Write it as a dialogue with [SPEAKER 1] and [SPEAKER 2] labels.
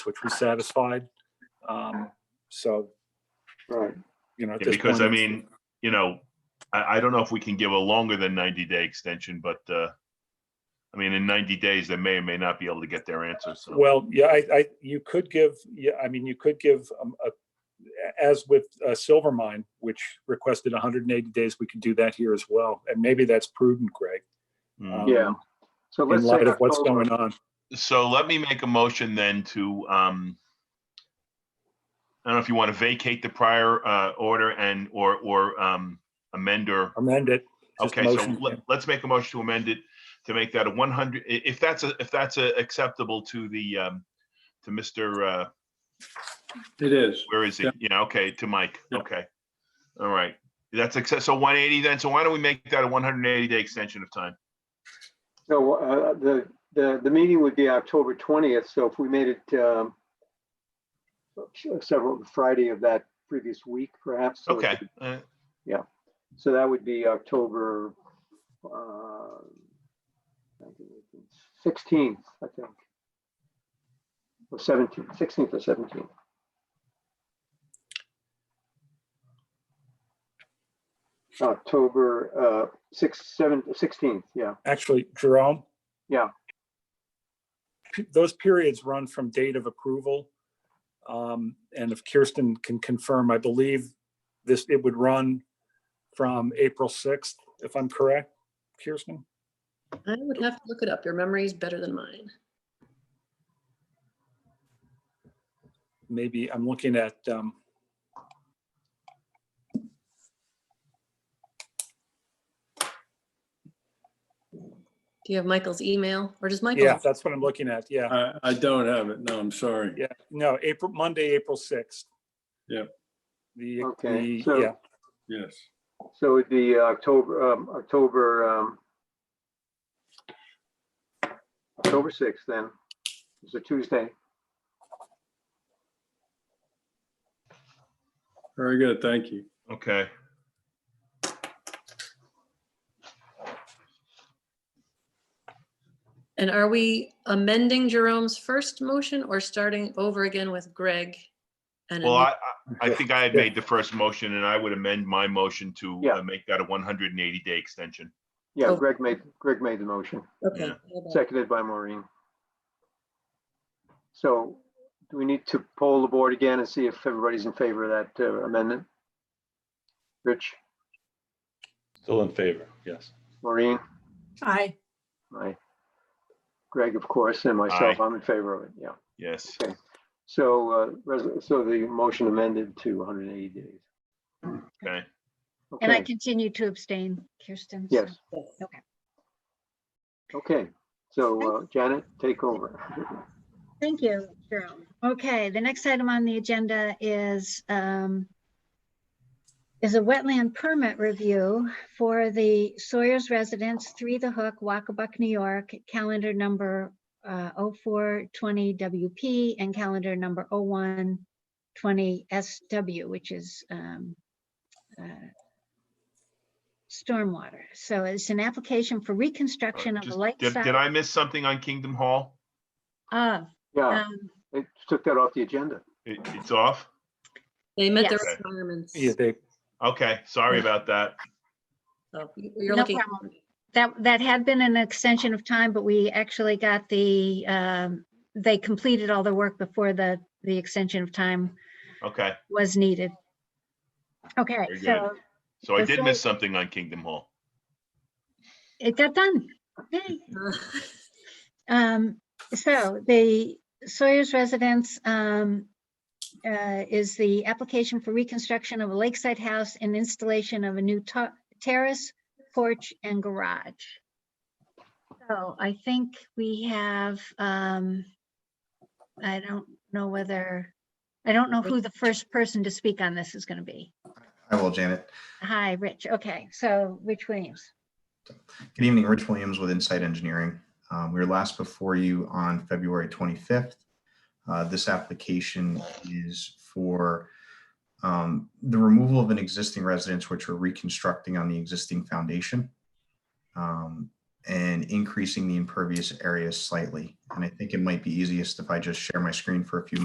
[SPEAKER 1] which we satisfied. Um, So,
[SPEAKER 2] Right.
[SPEAKER 1] you know. at
[SPEAKER 3] Yeah,
[SPEAKER 1] this
[SPEAKER 3] Because I
[SPEAKER 1] point,
[SPEAKER 3] mean, you know, I, I don't know if we can give a longer than ninety day extension, but, uh, I mean, in ninety days, they may or may not be able to get their answer. So,
[SPEAKER 1] Well, yeah, I, I, you could give, yeah, I mean, you could give, um, a, as with uh, Silvermine, which requested hundred and eighty days, we could do that here as well. And maybe that's prudent, Greg.
[SPEAKER 3] mm.
[SPEAKER 2] Yeah. So
[SPEAKER 1] Um, In
[SPEAKER 2] let's say
[SPEAKER 1] light of what's
[SPEAKER 2] October.
[SPEAKER 1] going on.
[SPEAKER 3] so let me make a motion then to, um, I don't know if you want to vacate the prior, uh, order and, or, or, um, amend or
[SPEAKER 1] Amend it. Just
[SPEAKER 3] Okay, so
[SPEAKER 1] motion.
[SPEAKER 3] let- let's make a motion to amend it, to make that a one hundred, i- if that's, a- if that's a- acceptable to the, um, to Mr., uh,
[SPEAKER 2] It is.
[SPEAKER 3] where is he?
[SPEAKER 1] Yeah.
[SPEAKER 3] Yeah, okay, to Mike,
[SPEAKER 1] Yeah.
[SPEAKER 3] okay. All right, that's access, so one eighty then, so why don't we make that a one hundred and eighty day extension of time?
[SPEAKER 2] So uh, the, the, the meeting would be October 20th, so if we made it um, several, Friday of that previous week perhaps. so it
[SPEAKER 3] Okay,
[SPEAKER 2] could-
[SPEAKER 3] uh,
[SPEAKER 2] So that would be October uh, 16th, I think. Or 17th, 16th or 17th. October uh, 6, 7, 16th, yeah.
[SPEAKER 1] Actually, Jerome?
[SPEAKER 2] Yeah.
[SPEAKER 1] P- Those periods run from date of approval. Um, And if Kirsten can confirm, I believe this, it would run from April 6th, if I'm correct, Kirsten?
[SPEAKER 4] I would have to look it up. Your memory is better than mine.
[SPEAKER 1] Maybe, I'm looking at, um,
[SPEAKER 4] Do you have Michael's email or does Michael?
[SPEAKER 1] yeah, that's what I'm looking at, yeah.
[SPEAKER 5] I, I don't have it. No, I'm sorry.
[SPEAKER 1] Yeah, no, April, Monday, April 6th.
[SPEAKER 5] Yeah.
[SPEAKER 1] The,
[SPEAKER 2] Okay,
[SPEAKER 1] the,
[SPEAKER 2] so-
[SPEAKER 1] yeah,
[SPEAKER 5] Yes.
[SPEAKER 2] So it'd be October, um, October, um, October 6th then. It's a Tuesday.
[SPEAKER 5] Very good. Thank you.
[SPEAKER 3] okay.
[SPEAKER 4] And are we amending Jerome's first motion or starting over again with Greg? And
[SPEAKER 3] Well,
[SPEAKER 4] a new-
[SPEAKER 3] I, I I think I had
[SPEAKER 1] Yeah.
[SPEAKER 3] made the first motion and I would amend my motion to
[SPEAKER 2] Yeah.
[SPEAKER 3] uh, make that a one hundred and eighty day extension.
[SPEAKER 2] Yeah,
[SPEAKER 4] Oh.
[SPEAKER 2] Greg made, Greg made the motion,
[SPEAKER 4] Okay.
[SPEAKER 3] yeah.
[SPEAKER 4] hold on.
[SPEAKER 2] seconded by Maureen. So do we need to poll the board again and see if everybody's in favor of that uh, amendment? Rich,
[SPEAKER 6] Still in favor, yes.
[SPEAKER 2] Maureen,
[SPEAKER 7] Aye.
[SPEAKER 2] I, Greg, of course, and myself, I'm in favor of it, yeah.
[SPEAKER 3] Yes,
[SPEAKER 2] So, uh, res- so the motion amended to 180 days.
[SPEAKER 3] okay,
[SPEAKER 8] And I
[SPEAKER 2] Okay.
[SPEAKER 8] continue to abstain, Kirsten. so-
[SPEAKER 2] Yes.
[SPEAKER 8] Okay.
[SPEAKER 2] Okay, so uh, Janet, take over.
[SPEAKER 8] Uh, Thank you, Jerome. Okay, the next item on the agenda is, um, is a wetland permit review for the Sawyer's Residence, Three the Hook, Wacabuck, New York, calendar number uh, 0420WP and calendar number 0120SW, which is um, uh, stormwater. So it's an application for reconstruction of a
[SPEAKER 3] Just-
[SPEAKER 8] light
[SPEAKER 3] did, did
[SPEAKER 8] side
[SPEAKER 3] I miss something on Kingdom Hall?
[SPEAKER 8] of,
[SPEAKER 2] Yeah,
[SPEAKER 8] um,
[SPEAKER 2] they took that off the agenda.
[SPEAKER 3] It, it's off?
[SPEAKER 4] They met the
[SPEAKER 3] Yes.
[SPEAKER 4] requirements.
[SPEAKER 1] yeah, they,
[SPEAKER 3] Okay, sorry about that.
[SPEAKER 4] So you- You're
[SPEAKER 8] No
[SPEAKER 4] looking.
[SPEAKER 8] problem. That, that had been an extension of time, but we actually got the, um, they completed all the work before the, the extension of time
[SPEAKER 3] Okay,
[SPEAKER 8] was needed. Okay,
[SPEAKER 3] Very good.
[SPEAKER 8] so
[SPEAKER 3] so I
[SPEAKER 8] That's
[SPEAKER 3] did
[SPEAKER 8] right.
[SPEAKER 3] miss something on Kingdom Hall.
[SPEAKER 8] it got done. Yay.
[SPEAKER 4] Uh,
[SPEAKER 8] Um, so the Sawyer's residence, um, uh, is the application for reconstruction of a lakeside house and installation of a new ta- terrace, porch and garage. So I think we have, um, I don't know whether, I don't know who the first person to speak on this is gonna be.
[SPEAKER 9] I will, Janet.
[SPEAKER 8] Hi, Rich. Okay, so Rich Williams.
[SPEAKER 9] Good evening, Rich Williams with Insight Engineering. Um, We were last before you on February 25th. Uh, This application is for um, the removal of an existing residence which we're reconstructing on the existing foundation. Um, and increasing the impervious area slightly. And I think it might be easiest if I just share my screen for a few